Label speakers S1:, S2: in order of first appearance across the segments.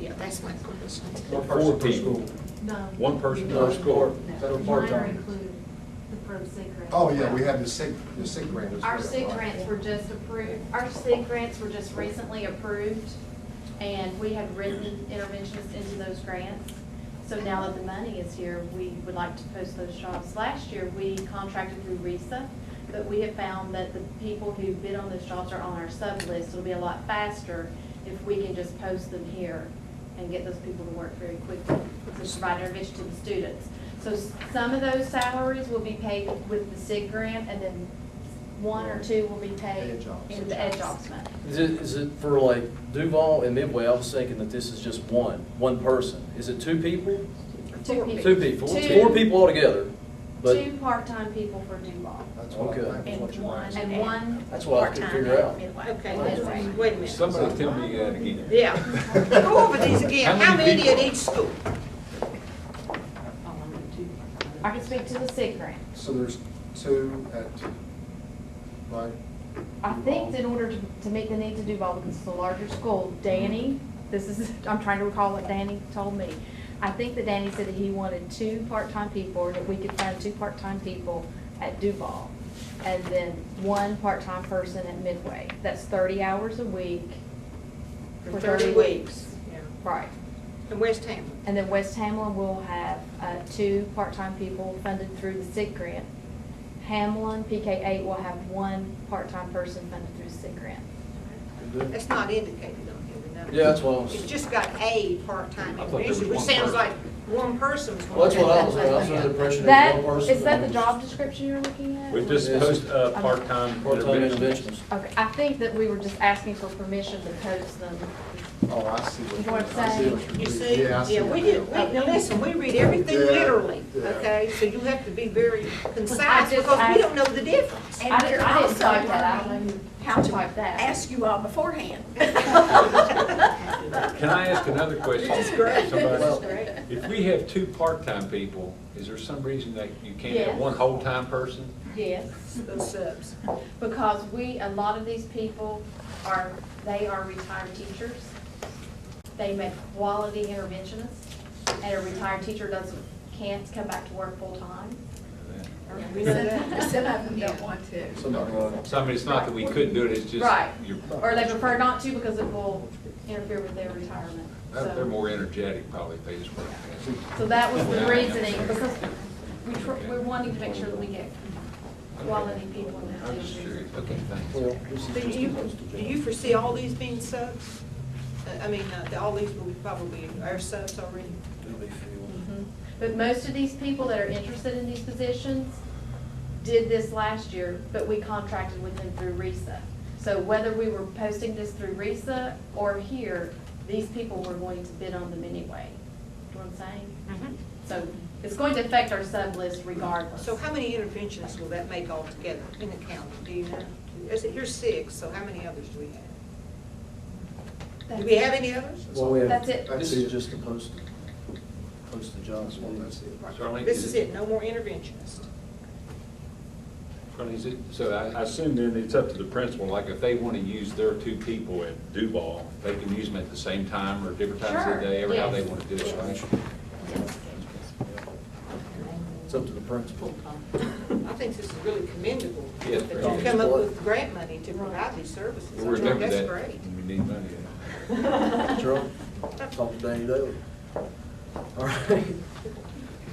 S1: Yeah, that's my question.
S2: Or
S3: Four
S2: person per
S3: people.
S2: school.
S4: No.
S3: One person
S2: per school.
S4: No,
S2: That'll
S4: Mine are
S2: part-time.
S4: included, the pro sig grant.
S2: Oh, yeah, we have the SIG, the SIG grant. as
S5: Our
S2: well,
S5: SIG
S2: right.
S5: grants were just approved, our SIG grants were just recently approved, and we have written interventionists into those grants. So now that the money is here, we would like to post those jobs. Last year, we contracted through RISA, but we have found that the people who bid on those jobs are on our sub list. It'll be a lot faster if we can just post them here and get those people to work very quickly to provide intervention to the students. So s- some of those salaries will be paid with the SIG grant, and then one or two will be
S2: Ed
S5: paid
S2: jobs.
S5: in the Ed Jobs money.
S6: Is it, is it for like Duval and Midway, I was thinking that this is just one, one person. Is it two people?
S5: Two people.
S6: Two people,
S5: Two-
S6: four people altogether, but
S5: Two part-time people for Duval,
S2: That's what
S6: Okay.
S2: I think is what
S1: And
S2: you're
S1: one.
S2: asking.
S5: and one,
S6: that's what I could
S1: part-time
S6: figure out.
S1: admin. Okay, that's- wait a minute.
S3: Somebody tell me that again.
S1: Yeah, go over these again,
S3: How
S1: how
S3: many
S1: many at
S3: people?
S1: each school?
S5: I can speak to the SIG grant.
S2: So there's two at, right?
S5: I think in order to, to meet the needs of Duval, because it's a larger school, Danny, this is, I'm trying to recall what Danny told me. I think that Danny said that he wanted two part-time people, or that we could find two part-time people at Duval. And then one part-time person at Midway. That's thirty hours a week.
S1: For thirty weeks. Yeah.
S5: Right.
S1: And West Ham.
S5: And then West Hamlin will have uh, two part-time people funded through the SIG grant. Hamlin, PK8 will have one part-time person funded through the SIG grant.
S1: That's not indicated on here, the number.
S6: Yeah, that's what I
S1: It's
S6: was,
S1: just got a part-time
S3: I thought there was
S1: individual, which
S3: one
S1: sounds
S3: person.
S1: like one person's.
S6: well, that's what I was,
S1: gonna-
S6: I was under the impression that
S5: That,
S6: one person.
S5: is that the job description you're looking at?
S3: We just
S6: Yes.
S3: post, uh, part-time
S6: Part-time
S3: intervention.
S6: interventions.
S5: Okay, I think that we were just asking for permission to post them.
S2: Oh, I see what
S5: You know
S2: you're,
S5: what I'm
S2: I see
S5: saying?
S2: what you're.
S1: You
S2: doing.
S1: see,
S2: Yeah, I see
S1: yeah,
S2: what
S1: we
S2: you're
S1: did,
S2: doing.
S1: we- now listen, we read everything
S2: Yeah,
S1: literally,
S2: yeah.
S1: okay? So you have to be very concise
S5: I just
S1: because we
S5: asked-
S1: don't know the difference.
S5: I didn't, I didn't type that, I don't know how to type that.
S7: ask you all beforehand.
S3: Can I ask another question?
S1: This is great.
S3: Somebody-
S1: This is great.
S3: If we have two part-time people, is there some reason that you can't have
S5: Yes.
S3: one whole-time person?
S5: Yes.
S1: Those subs.
S5: because we, a lot of these people are, they are retired teachers. They make quality interventionists, and a retired teacher doesn't, can't come back to work full-time.
S1: We know that.
S7: Some of them don't want to.
S2: Somebody like-
S3: So I mean, it's not that we couldn't do it, it's just.
S5: Right.
S3: you're-
S5: Or they prefer not to because it will interfere with their retirement.
S3: Uh, They're they're
S5: So,
S3: more energetic probably, if they just work.
S5: so that was the reasoning, because we, tr- we're wanting to make sure that we get quality people in that.
S3: I'm just curious, okay, thanks.
S6: Well, this is
S1: Do
S6: just a
S1: you,
S6: post of
S1: do
S6: job.
S1: you foresee all these being subs? Uh, I mean, uh, the- all these will probably, are subs already?
S6: Do they feel-
S5: Mhm. But most of these people that are interested in these positions did this last year, but we contracted with them through RISA. So whether we were posting this through RISA or here, these people were going to bid on them anyway. Do you know what I'm saying?
S1: Mm-hmm.
S5: So it's going to affect our sub list regardless.
S1: So how many interventions will that make altogether in the county, do you know? Is it, you're six, so how many others do we have? Do we have any others?
S6: Well, we have-
S5: That's it.
S6: Mhm. This is just a post, post the jobs.
S2: That's one, that's it.
S3: Charlene,
S1: This is it, no more interventionists.
S3: Charlene, is it- So I I assume then it's up to the principal, like if they want to use their two people at Duval, they can use them at the same time or different times
S5: Sure,
S3: of the day, or how they
S5: yes.
S3: want to do it, right?
S6: It's up to the principal.
S1: I think this is really commendable,
S3: Yes,
S1: that
S3: very
S1: you come up with grant money to provide these services.
S3: We'll remember
S1: That's
S3: that
S1: great.
S3: when we need money.
S6: Charlie, talk to Danny Daly. All right.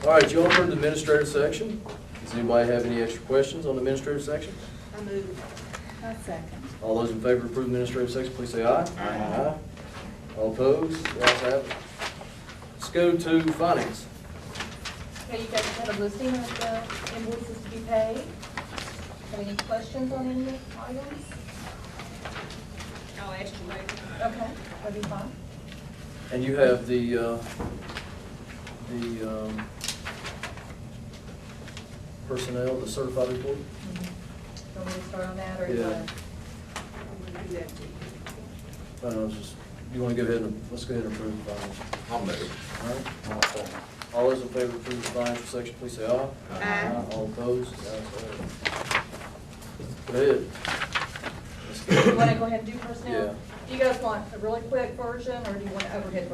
S6: All right, you all heard the administrative section. Does anybody have any extra questions on the administrative section?
S1: I move.
S6: All those in favor of approving the administrative section, please say aye. Aye. All opposed? The ayes have it. Let's go to finance.
S8: Okay, you guys have a listing of the invoices to be paid. Have any questions on any items?
S1: I'll ask you later.
S8: Okay, that'd be fine.
S6: And you have the, uh, the um, personnel, the certified report?
S8: Want me to Mm-hmm. start on that, or you
S6: Yeah.
S8: wanna-
S1: I'm gonna do that to you.
S6: Uh, I don't know, just, you want to go ahead and, let's go ahead and approve the finance.
S3: I'll move.
S6: All right. All those in favor of approving the financial section, please say aye.
S1: Aye.
S6: All opposed? The ayes have it. Go ahead. Let's go.
S8: you wanna go ahead and do personnel?
S6: Yeah.
S8: Do you guys want a really quick version, or do you want an overhead